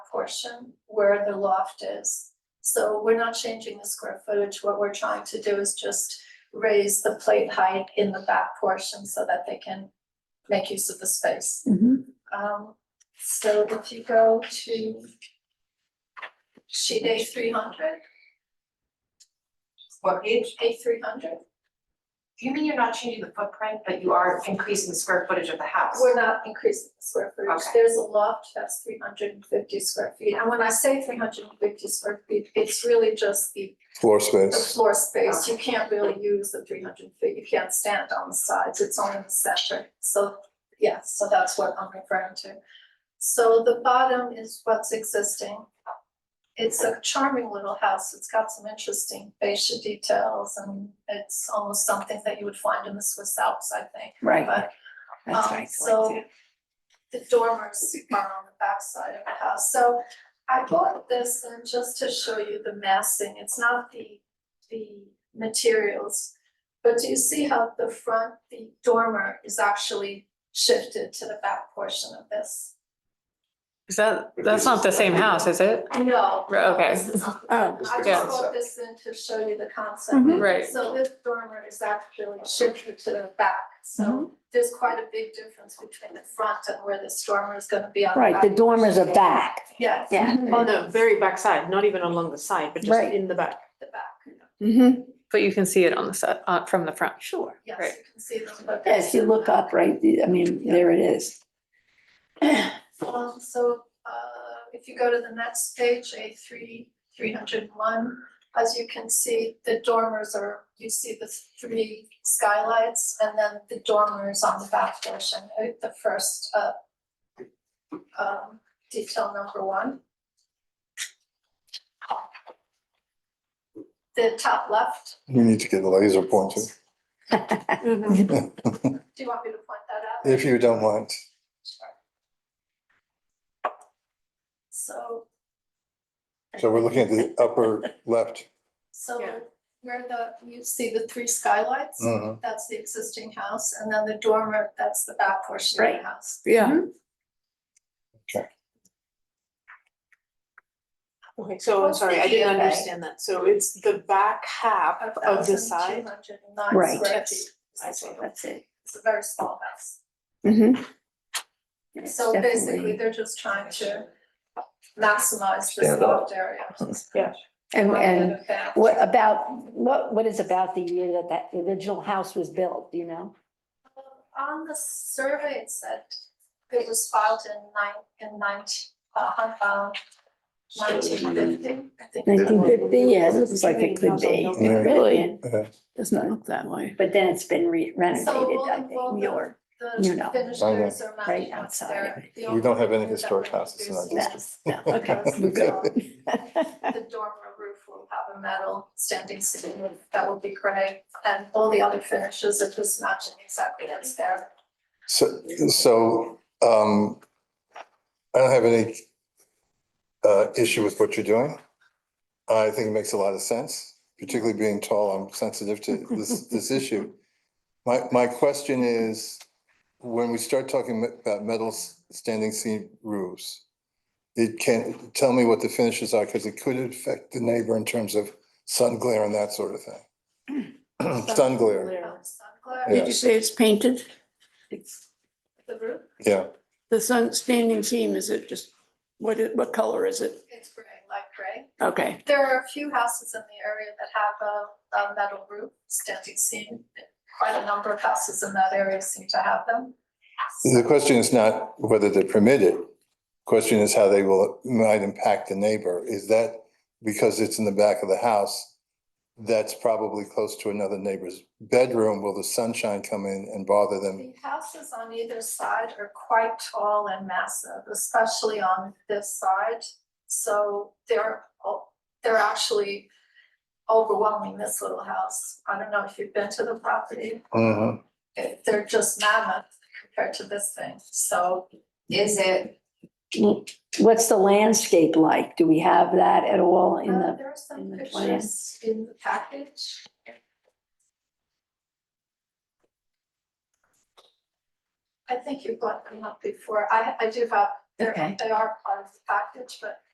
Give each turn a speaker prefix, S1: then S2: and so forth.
S1: portion where the loft is. So we're not changing the square footage, what we're trying to do is just raise the plate height in the back portion so that they can make use of the space.
S2: Mhm.
S1: Um, so if you go to sheet A three hundred,
S3: What page?
S1: A three hundred,
S3: You mean you're not changing the footprint, but you are increasing the square footage of the house?
S1: We're not increasing the square footage,
S3: Okay.
S1: there's a loft that's three hundred and fifty square feet, and when I say three hundred and fifty square feet, it's really just the
S4: floor
S1: the
S4: space.
S1: floor space, you can't really use the three hundred feet, you can't stand on the sides, it's only the center, so, yeah, so that's what I'm referring to. So the bottom is what's existing. It's a charming little house, it's got some interesting fascia details, and it's almost something that you would find in the Swiss Alps, I think,
S2: Right,
S1: but
S2: that's
S1: um,
S2: right.
S1: So the dormers are on the backside of the house, so I bought this and just to show you the massing, it's not the the materials. But do you see how the front, the dormer is actually shifted to the back portion of this?
S5: Is that, that's not the same house, is it?
S1: No.
S5: Right, okay.
S1: this is not.
S2: Oh,
S1: I
S5: Yeah.
S1: just brought this in to show you the concept.
S6: Mm-hmm.
S2: Mhm.
S5: Right.
S1: So this dormer is actually shifted to the back, so there's quite a big difference between the front and where this dormer is gonna be on the
S2: Oh, right, the
S1: back.
S2: dormers are back,
S1: Yes.
S2: yeah.
S6: On the Oh, very back side, not even along the side, but just
S2: Right.
S6: in the back.
S1: The back,
S2: Mhm.
S5: But you can see it on the set, uh, from the front.
S2: Sure.
S1: yes,
S5: Right.
S1: you can see them, but.
S2: Yes, you look up, right, I mean, there it is.
S1: Um, so, uh, if you go to the next page, A three, three hundred and one, as you can see, the dormers are, you see the three skylights and then the dormers on the back portion, uh, the first, uh, um, detail number one. The top left,
S4: You need to get a laser pointer,
S6: Mm-hmm.
S1: do you want me to point that out?
S4: if you don't mind.
S1: So,
S4: So we're looking at the upper left.
S6: Yeah.
S1: so where the, you see the three skylights?
S4: Mhm.
S1: That's the existing house, and then the dormer, that's the back portion of the house.
S5: Yeah.
S6: Mm-hmm. Okay, so I'm
S1: What's
S6: sorry,
S1: the
S6: I didn't
S1: DFA?
S6: understand that. So it's the back half of the side.
S1: 1,209
S2: Right.
S1: square
S6: Yes.
S1: feet.
S6: I see.
S2: That's it.
S1: It's a very small house.
S2: Mhm. Yes,
S1: So basically,
S2: definitely.
S1: they're just trying to maximize this
S4: Stand out.
S1: loft area.
S2: And,
S1: rather
S2: and
S1: than back.
S2: what about, what, what is about the year that that original house was built, do you know?
S1: On the survey, it said it was filed in nine, in nineteen, uh, hun- uh, nineteen fifty, I think.
S2: Nineteen fifty, yeah, it looks like it could be,
S4: Yeah.
S2: really,
S4: Yeah.
S2: doesn't look that way. But then it's been re- renovated,
S1: we'll
S2: I think,
S1: involve the-
S2: your, you
S1: The
S2: know,
S1: finished
S4: Okay.
S1: areas are
S2: Right
S1: matching what's
S2: outside of
S1: there.
S2: it.
S1: The
S4: We
S1: only
S4: don't have any
S1: thing that
S4: historic
S1: we're
S4: houses in our
S1: reducing
S4: district.
S2: yes, no, okay, we're good.
S1: The dormer roof will have a metal standing seam roof that will be gray and all the other finishes are just matching exactly what's there.
S4: So, so, um, I don't have any, uh, issue with what you're doing. I think it makes a lot of sense, particularly being tall, I'm sensitive to this, this issue. My, my question is, when we start talking about metal s- standing seam roofs, it can, tell me what the finishes are, because it could affect the neighbor in terms of sun glare and that sort of thing. Sun glare,
S1: Um, sun glare,
S4: Yeah.
S7: Did you say it's painted?
S1: The roof,
S4: yeah.
S7: The sun standing seam, is it just, what, it- what color is it?
S1: it's gray, light gray.
S7: Okay,
S1: There are a few houses in the area that have a, a metal roof standing seam. Quite a number of houses in that area seem to have them.
S4: The question is not whether they're permitted. Question is how they will, might impact the neighbor. Is that because it's in the back of the house? That's probably close to another neighbor's bedroom. Will the sunshine come in and bother them?
S1: The houses on either side are quite tall and massive, especially on this side. So they're, o- they're actually overwhelming this little house. I don't know if you've been to the property.
S4: Mhm.
S1: It- They're just mammoth compared to this thing. So
S3: Is it,
S2: What's the landscape like? Do we have that at all in
S1: uh,
S2: the,
S1: there are some
S2: in the
S1: pictures in the package. I think you've got them up before. I, I do have They're-
S2: Okay.
S1: They are part of the package, but